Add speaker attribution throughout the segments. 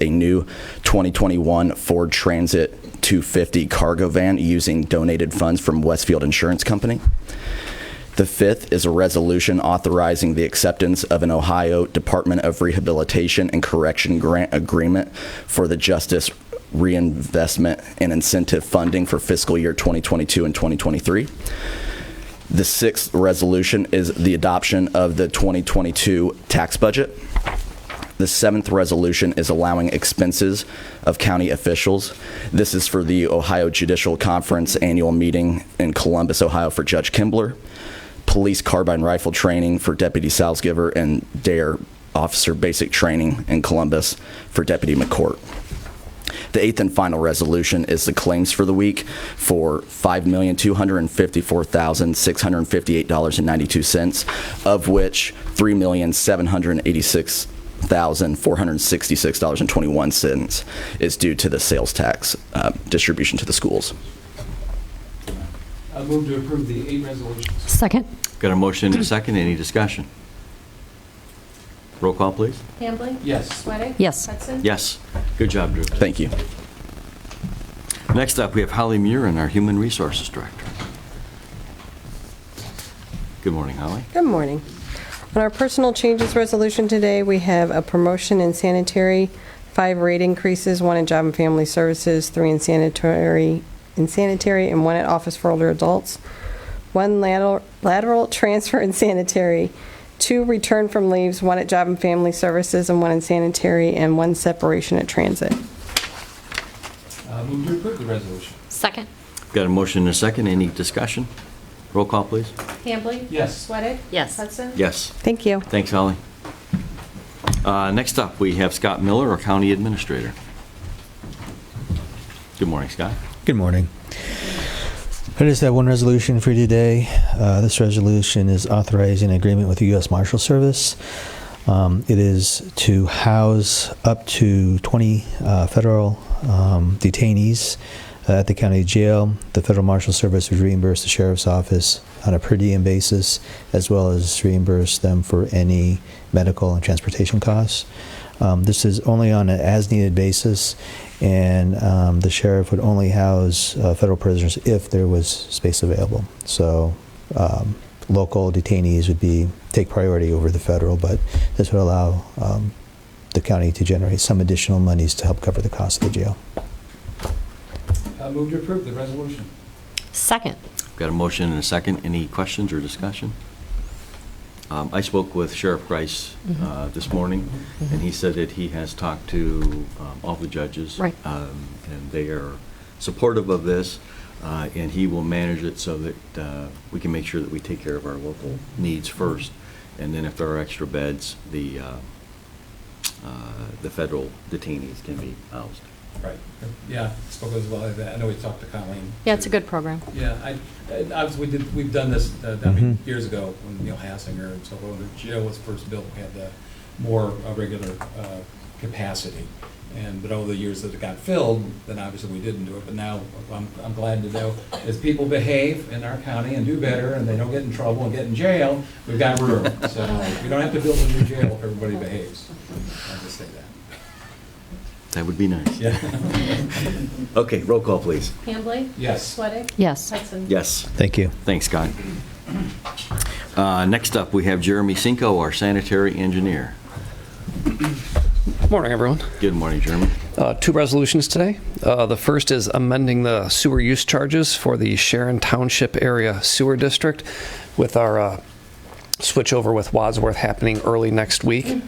Speaker 1: a new 2021 Ford Transit 250 cargo van using donated funds from Westfield Insurance Company. The fifth is a resolution authorizing the acceptance of an Ohio Department of Rehabilitation and Correction grant agreement for the Justice Reinvestment and Incentive Funding for fiscal year 2022 and 2023. The sixth resolution is the adoption of the 2022 tax budget. The seventh resolution is allowing expenses of county officials. This is for the Ohio Judicial Conference Annual Meeting in Columbus, Ohio for Judge Kimbler, police carbine rifle training for Deputy Salzgiver, and DARE E Officer Basic Training in Columbus for Deputy McCourt. The eighth and final resolution is the claims for the week for $5,254,658.92, of which $3,786,466.21 is due to the sales tax uh, distribution to the schools.
Speaker 2: I move to approve the eight resolutions.
Speaker 3: Second.
Speaker 4: Got a motion and a second, any discussion? Roll call, please.
Speaker 5: Hambley?
Speaker 2: Yes.
Speaker 5: Sweattick?
Speaker 3: Yes.
Speaker 5: Hudson?
Speaker 4: Yes. Good job, Drew.
Speaker 1: Thank you.
Speaker 4: Next up, we have Holly Murin, our Human Resources Director. Good morning, Holly.
Speaker 6: Good morning. On our personal changes resolution today, we have a promotion in sanitary, five rate increases, one in job and family services, three in sanitary, in sanitary, and one at office for older adults, one lateral lateral transfer in sanitary, two return from leaves, one at job and family services, and one in sanitary, and one separation at transit.
Speaker 2: I move to approve the resolution.
Speaker 3: Second.
Speaker 4: Got a motion and a second, any discussion? Roll call, please.
Speaker 5: Hambley?
Speaker 2: Yes.
Speaker 5: Sweattick?
Speaker 3: Yes.
Speaker 5: Hudson?
Speaker 4: Yes.
Speaker 6: Thank you.
Speaker 4: Thanks, Holly. Uh, Next up, we have Scott Miller, our County Administrator. Good morning, Scott.
Speaker 7: Good morning. I just have one resolution for you today. Uh, This resolution is authorizing an agreement with the U.S. Marshal Service. Um, It is to house up to 20 uh, federal um, detainees at the county jail. The Federal Marshal Service would reimburse the sheriff's office on a per diem basis, as well as reimburse them for any medical and transportation costs. Um, This is only on an as-needed basis, and um, the sheriff would only house uh, federal prisoners if there was space available. So um, local detainees would be, take priority over the federal, but this would allow um, the county to generate some additional monies to help cover the cost of the jail.
Speaker 2: I move to approve the resolution.
Speaker 3: Second.
Speaker 4: Got a motion and a second. Any questions or discussion? Um, I spoke with Sheriff Grice uh, this morning, and he said that he has talked to um, all the judges.
Speaker 3: Right.
Speaker 4: um, And they are supportive of this, uh, and he will manage it so that uh, we can make sure that we take care of our local needs first. And then if there are extra beds, the, uh, uh, the federal detainees can be housed.
Speaker 2: Right. Yeah, spoke as well as that. I know we talked to Colleen.
Speaker 3: Yeah, it's a good program.
Speaker 2: Yeah, I, and obviously, we did, we've done this, uh, I mean,
Speaker 7: Mhm.
Speaker 2: years ago, when Neil Hassinger and so on, the jail was first built, we had the more uh, regular uh, capacity. And, but over the years that it got filled, then obviously we didn't do it, but now, I'm, I'm glad to know, as people behave in our county and do better, and they don't get in trouble and get in jail, we've got room. So, we don't have to build a new jail if everybody behaves. I'll just say that.
Speaker 4: That would be nice.
Speaker 2: Yeah.
Speaker 4: Okay, roll call, please.
Speaker 5: Hambley?
Speaker 2: Yes.
Speaker 5: Sweattick?
Speaker 3: Yes.
Speaker 5: Hudson?
Speaker 4: Yes.
Speaker 7: Thank you.
Speaker 4: Thanks, Scott. Uh, Next up, we have Jeremy Cinco, our sanitary engineer.
Speaker 8: Morning, everyone.
Speaker 4: Good morning, Jeremy.
Speaker 8: Uh, Two resolutions today. Uh, The first is amending the sewer use charges for the Sharon Township Area Sewer District with our uh, switchover with Wadsworth happening early next week.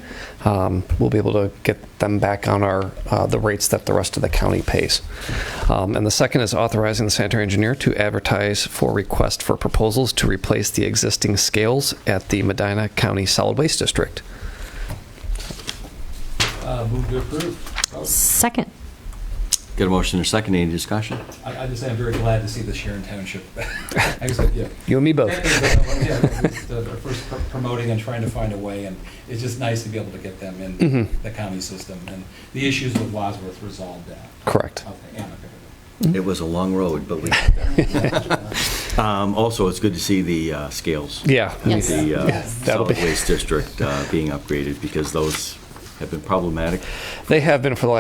Speaker 8: Um, We'll be able to get them back on our, uh, the rates that the rest of the county pays. Um, And the second is authorizing the sanitary engineer to advertise for request for proposals to replace the existing scales at the Medina County Solid Waste District.
Speaker 2: Uh, Move to approve. Oh.
Speaker 3: Second.
Speaker 4: Got a motion and a second, any discussion?
Speaker 2: I, I just am very glad to see the Sharon Township. I guess, yeah.
Speaker 8: You and me both.
Speaker 2: Yeah, it's, uh, First pr- promoting and trying to find a way, and it's just nice to be able to get them in
Speaker 8: Mhm.
Speaker 2: the county system, and the issues with Wadsworth resolved that.
Speaker 8: Correct.
Speaker 2: Okay, amicably.
Speaker 8: Mm-hmm.
Speaker 4: It was a long road, but we got there. Um, Also, it's good to see the uh, scales.
Speaker 8: Yeah.
Speaker 3: Yes.
Speaker 4: The uh,
Speaker 8: Yes. That'll
Speaker 4: solid
Speaker 8: be-
Speaker 4: waste district uh, being upgraded because those have been problematic.
Speaker 8: They have been for the last